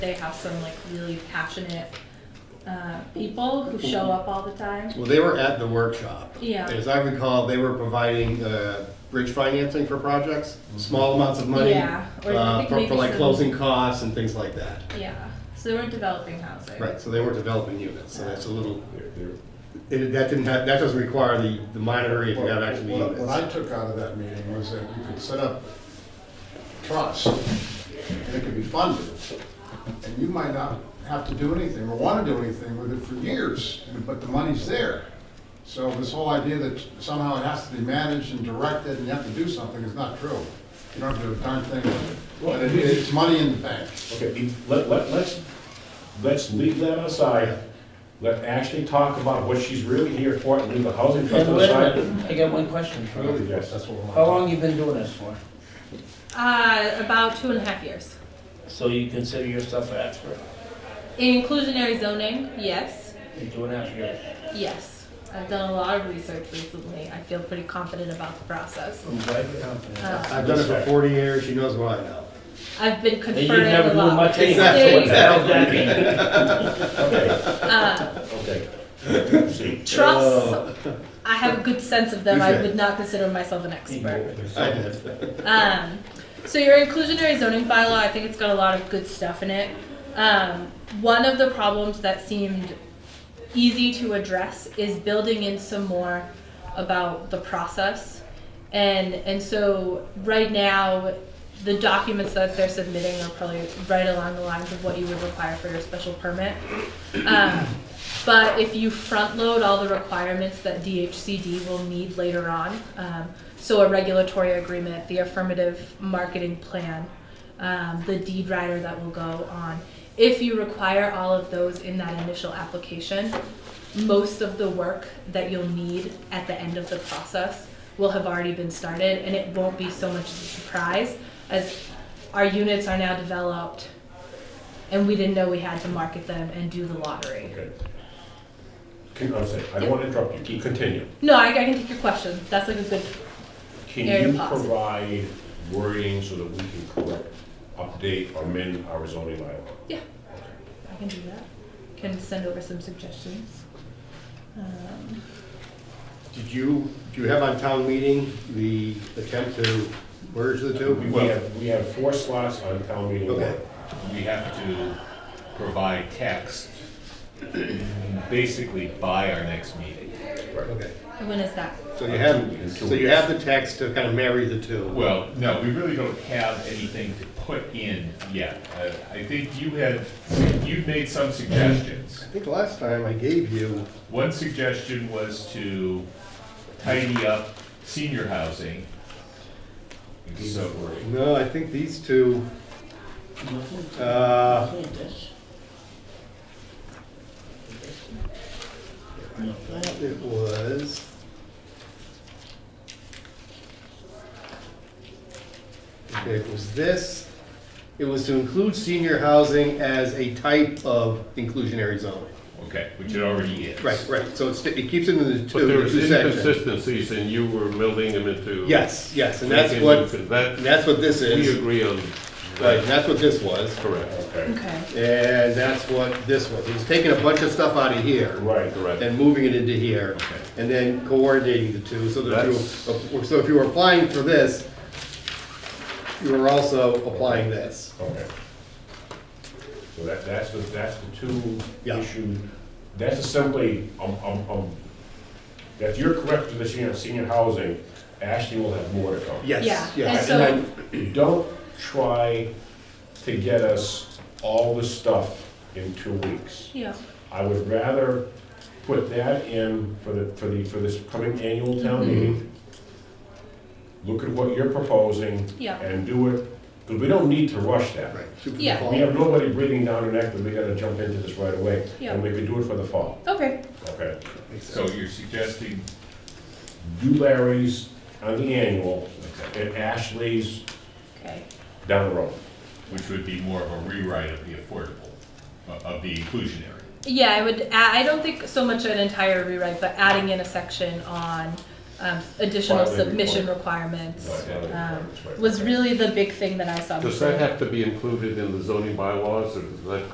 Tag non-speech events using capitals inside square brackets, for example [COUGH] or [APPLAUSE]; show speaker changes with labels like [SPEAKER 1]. [SPEAKER 1] They have some like really passionate uh, people who show up all the time.
[SPEAKER 2] Well, they were at the workshop.
[SPEAKER 1] Yeah.
[SPEAKER 2] As I recall, they were providing uh, bridge financing for projects, small amounts of money.
[SPEAKER 1] Yeah, or I
[SPEAKER 2] uh,
[SPEAKER 1] think
[SPEAKER 2] For
[SPEAKER 1] maybe
[SPEAKER 2] for like
[SPEAKER 1] some-
[SPEAKER 2] closing costs and things like that.
[SPEAKER 1] Yeah, so they were developing housing.
[SPEAKER 2] Right, so they weren't developing units, so that's a little,
[SPEAKER 3] They're- they're-
[SPEAKER 2] it- that didn't have, that doesn't require the the monitoring if you have actually
[SPEAKER 3] What what I
[SPEAKER 2] units.
[SPEAKER 3] took out of that meeting was that you could set up trust, and it could be funded, and you might not have to do anything or want to do anything with it for years, and- but the money's there. So this whole idea that somehow it has to be managed and directed and you have to do something is not true. You don't have to do a darn thing with it. But it- it's money in the bank.
[SPEAKER 4] Okay, let, let, let's, let's leave that aside. Let Ashley talk about what she's really here for and leave the housing
[SPEAKER 5] Yeah,
[SPEAKER 4] trust
[SPEAKER 5] but wait a
[SPEAKER 4] aside. Oh,
[SPEAKER 5] minute, I got one question for you.
[SPEAKER 4] Yes.
[SPEAKER 3] That's what
[SPEAKER 5] How
[SPEAKER 3] we're on.
[SPEAKER 5] long you been doing this for?
[SPEAKER 1] Uh, about two and a half years.
[SPEAKER 5] So you consider yourself an expert
[SPEAKER 1] In inclusionary zoning, yes,
[SPEAKER 5] in two and a half years?
[SPEAKER 1] yes. I've done a lot of research recently. I feel pretty confident about the process.
[SPEAKER 5] I'm glad you're confident.
[SPEAKER 1] Uh,
[SPEAKER 2] I've done it for 40 years, she knows what I know. [LAUGHS]
[SPEAKER 1] I've been
[SPEAKER 5] And
[SPEAKER 1] conferring
[SPEAKER 5] you never
[SPEAKER 1] a
[SPEAKER 5] knew
[SPEAKER 1] lot.
[SPEAKER 5] much
[SPEAKER 1] with the
[SPEAKER 5] anyway.
[SPEAKER 1] state.
[SPEAKER 2] Exactly.
[SPEAKER 5] What the hell does
[SPEAKER 1] [LAUGHS]
[SPEAKER 5] that mean?
[SPEAKER 4] Okay,
[SPEAKER 1] Uh,
[SPEAKER 4] okay. See,
[SPEAKER 1] Trust,
[SPEAKER 5] Oh.
[SPEAKER 1] I have a good sense of them. I
[SPEAKER 2] Okay.
[SPEAKER 1] would not consider myself an expert.
[SPEAKER 2] I did.
[SPEAKER 1] Um, so your inclusionary zoning bylaw, I think it's got a lot of good stuff in it. Um, one of the problems that seemed easy to address is building in some more about the process. And and so right now, the documents that they're submitting are probably right along the lines of what you would require for your special permit. Um, but if you front load all the requirements that DHCD will need later on, um, so a regulatory agreement, the affirmative marketing plan, um, the deed rider that will go on, if you require all of those in that initial application, most of the work that you'll need at the end of the process will have already been started, and it won't be so much of a surprise as our units are now developed, and we didn't know we had to market them and do the lottery.
[SPEAKER 4] Okay. Can, I'm sorry, I don't want to interrupt you, keep, continue.
[SPEAKER 1] No, I, I can take your question. That's like a good.
[SPEAKER 4] Can
[SPEAKER 1] Area
[SPEAKER 4] you
[SPEAKER 1] policy.
[SPEAKER 4] provide wording so that we can correct, update, or amend our zoning bylaw?
[SPEAKER 1] Yeah, I can do that. Can send over some suggestions. Um,
[SPEAKER 2] Did you, do you have on town meeting the attempt to merge the two?
[SPEAKER 4] We we have, we have four slots on town meeting.
[SPEAKER 2] Okay.
[SPEAKER 6] we have to provide text basically by our next meeting.
[SPEAKER 2] Okay,
[SPEAKER 1] and when is that?
[SPEAKER 2] so you have, so you have the text to kind of marry the two.
[SPEAKER 6] Well, no, we really don't have anything to put in yet. Uh, I- I think you had, you made some suggestions.
[SPEAKER 2] I think last time I gave you
[SPEAKER 6] One suggestion was to tidy up senior housing. And So,
[SPEAKER 2] No, I think these two, uh, it was. Okay, it was this, it was to include senior housing as a type of inclusionary zone.
[SPEAKER 6] okay, which it already is.
[SPEAKER 2] Right, right, so it's, it keeps it in the
[SPEAKER 7] But
[SPEAKER 2] two,
[SPEAKER 7] there
[SPEAKER 2] the
[SPEAKER 7] was
[SPEAKER 2] two sections.
[SPEAKER 7] inconsistencies and you were melding them into.
[SPEAKER 2] Yes, yes, and that's
[SPEAKER 7] making
[SPEAKER 2] what,
[SPEAKER 7] them- That,
[SPEAKER 2] that's what this
[SPEAKER 7] we
[SPEAKER 2] is,
[SPEAKER 7] agree on
[SPEAKER 2] right,
[SPEAKER 7] that,
[SPEAKER 2] that's what this was.
[SPEAKER 7] correct.
[SPEAKER 4] okay,
[SPEAKER 1] Okay.
[SPEAKER 2] And that's what this was. It was taking a bunch of stuff out of here.
[SPEAKER 4] right, correct.
[SPEAKER 2] and moving it into here,
[SPEAKER 6] Okay.
[SPEAKER 2] and then coordinating the two, so that you,
[SPEAKER 7] That's-
[SPEAKER 2] so if you were applying for this, you were also applying this.
[SPEAKER 4] Okay. So that, that's the, that's the two
[SPEAKER 2] Yeah.
[SPEAKER 4] issue, that's assembly, um, um, um, if you're correct with the senior, senior housing, Ashley will have more to come.
[SPEAKER 1] Yeah,
[SPEAKER 2] Yes,
[SPEAKER 1] and
[SPEAKER 2] yes.
[SPEAKER 1] so-
[SPEAKER 4] And then don't try to get us all the stuff in two weeks.
[SPEAKER 1] Yeah.
[SPEAKER 4] I would rather put that in for the, for the, for this coming annual town meeting. Look at what you're proposing.
[SPEAKER 1] Yeah.
[SPEAKER 4] And do it, because we don't need to rush that.
[SPEAKER 2] Right, shoot for the
[SPEAKER 1] Yeah.
[SPEAKER 2] fall.
[SPEAKER 4] We have nobody breathing down our neck that we gotta jump into this right away.
[SPEAKER 1] Yeah.
[SPEAKER 4] And we could do it for the fall,
[SPEAKER 1] Okay.
[SPEAKER 4] okay?
[SPEAKER 6] So you're suggesting,
[SPEAKER 4] Do Larry's on the annual and Ashley's
[SPEAKER 1] Okay.
[SPEAKER 4] down the road.
[SPEAKER 6] which would be more of a rewrite of the affordable, uh, of the inclusionary.
[SPEAKER 1] Yeah, I would. Add, I don't think so much an entire rewrite, but adding in a section on um, additional
[SPEAKER 4] Filing
[SPEAKER 1] submission
[SPEAKER 4] Right,
[SPEAKER 1] requirements,
[SPEAKER 4] right, right,
[SPEAKER 1] um,
[SPEAKER 4] right.
[SPEAKER 1] was really the big thing that I saw.
[SPEAKER 6] Does
[SPEAKER 1] before.
[SPEAKER 6] that have to be included in the zoning bylaws, or does that